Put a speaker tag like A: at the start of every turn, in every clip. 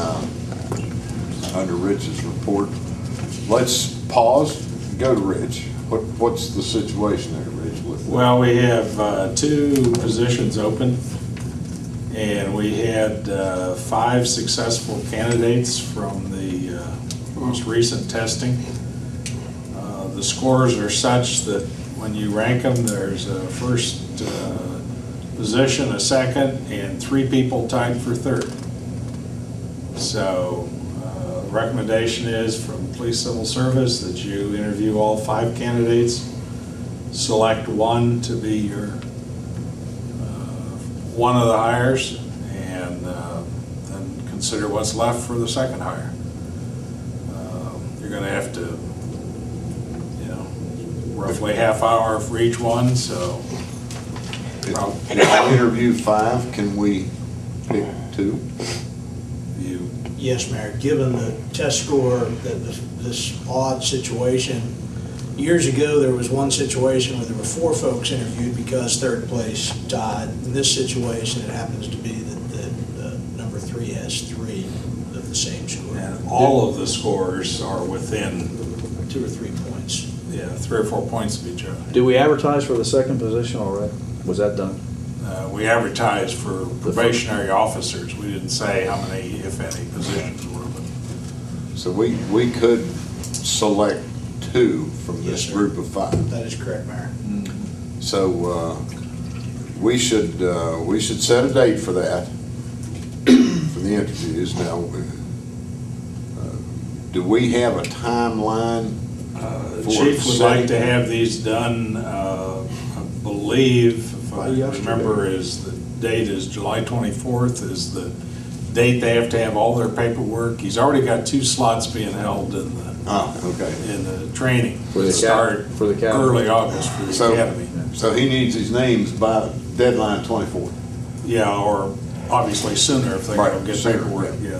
A: Uh, under Rich's report. Let's pause, go to Rich. What, what's the situation there, Rich? with the-
B: Well, we have uh, two positions open, and we had uh, five successful candidates from the uh, most recent testing. Uh, The scores are such that when you rank them, there's a first uh, position, a second, and three people tied for third. So uh, the recommendation is from Police Civil Service that you interview all five candidates, select one to be your, uh, one of the hires, and uh, then consider what's left for the second hire. Um, You're going to have to, you know, roughly half hour for each one, so
A: If if I interview five, can we pick two?
B: you,
C: Yes, Mayor, given the test score, that this- this odd situation, years ago, there was one situation where there were four folks interviewed because third place tied. In this situation, it happens to be that, that uh, number three has three of the same score,
B: and all of the scores are within,
C: two or three points.
B: yeah, three or four points of each other.
D: Did we advertise for the second position already? Was that done?
B: Uh, We advertised for probationary officers. We didn't say how many, if any, positions were, but
A: So we, we could select two from
C: Yes,
A: this
C: sir.
A: group of five.
C: That is correct, Mayor.
A: So, uh, we should, uh, we should set a date for that, for the interviews. Now, uh, do we have a timeline?
B: Uh, The
A: for
B: chief would
A: setting-
B: like to have these done, uh, I believe, if I
D: By yesterday.
B: remember, is the date is July 24th is the date they have to have all their paperwork. He's already got two slots being held in the,
A: Ah, okay.
B: in the training.
D: For the
B: to start
D: acad- for the academy.
B: Early August for the
A: So-
B: academy.
A: So he needs his names by deadline twenty-four.
B: Yeah, or obviously sooner if they
A: Right,
B: don't get
A: sooner,
B: paperwork, yeah.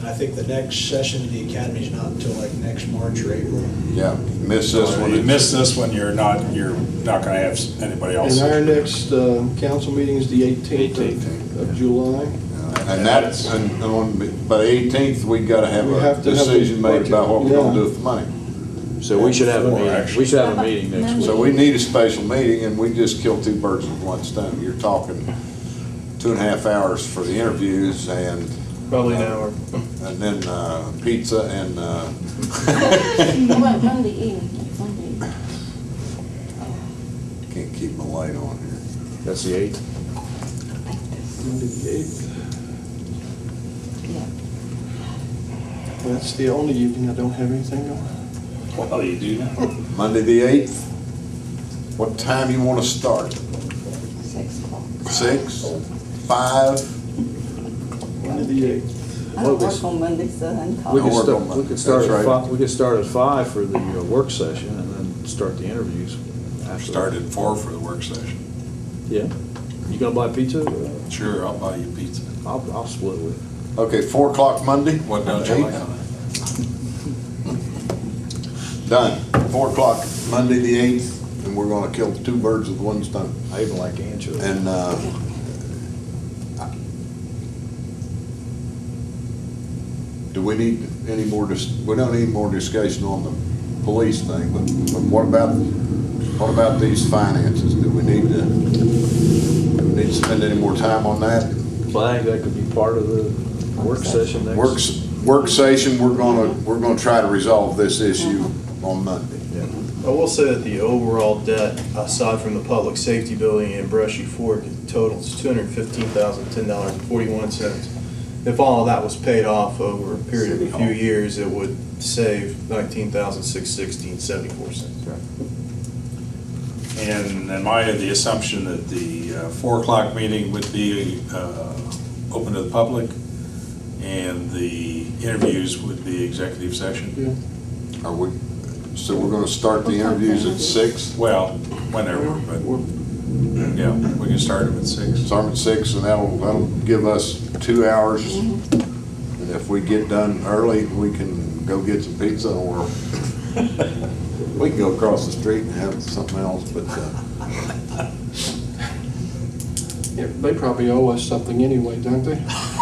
C: And I think the next session of the academy is not until like next March or April.
E: Mm-hmm.
A: Yeah, miss this one.
B: You miss this one, you're not, you're not gonna have anybody else.
E: And our next uh, council meeting is the 18th of- of July.
A: And that's, and on, by the eighteenth, we gotta have
E: We
A: a
E: have to have a
A: decision made about what we're gonna
E: budget,
A: do
E: yeah.
A: with the money.
D: So we should have a
B: Four,
D: meeting,
B: actually.
D: we should have a meeting next week.
A: So we need a special meeting, and we just kill two birds with one stone. You're talking two and a half hours for the interviews and,
F: Probably an hour.
A: and then, uh, pizza and, uh,
G: Mon- Monday evening, Sunday evening.
A: can't keep my light on here.
D: That's the eighth.
E: That's the only evening I don't have anything on.
B: Well, you do now.
A: Monday, the eighth, what time you wanna start?
G: Six o'clock.
A: Six, five?
E: Monday the 8th.
G: I don't work on Monday, so I'm
D: We
A: Don't
D: could
A: work
G: calling.
D: start,
A: on
D: we
A: Monday.
D: could start
A: That's
D: at
A: right.
D: five, we could start at five for the uh, work session and then start the interviews after.
B: Start at four for the work session.
D: Yeah. You gonna buy pizza?
B: Sure, I'll buy you pizza.
D: I'll, I'll split with
A: Okay, four o'clock Monday?
B: What don't you like on it?
A: Done. Four o'clock, Monday, the eighth, and we're gonna kill two birds with one stone.
D: you. I even like anchovies.
A: And, uh, do we need any more, dis- we don't need more discussion on the police thing, but, but what about, what about these finances? Do we need to, do we need to spend any more time on that?
D: But I think that could be part of the work session next.
A: Works, work session, we're gonna, we're gonna try to resolve this issue on Monday.
D: Yeah.
F: I will say that the overall debt, aside from the public safety building in Brushy Fork, totals two hundred fifteen thousand, ten dollars and forty-one cents. If all of that was paid off over a period of
A: City
F: a few
A: Hall.
F: years, it would save nineteen thousand, six sixteen, seventy-four cents.
B: And in my, the assumption that the uh, four o'clock meeting would be uh, open to the public, and the interviews would be executive session.
A: Are we, so we're gonna start the interviews at six,
B: Well, whenever, but, yeah, we can start them at six.
A: start at six, and that'll, that'll give us two hours. And if we get done early, we can go get some pizza, or we can go across the street and have something else, but, uh,
E: Yeah, They probably owe us something anyway, don't they?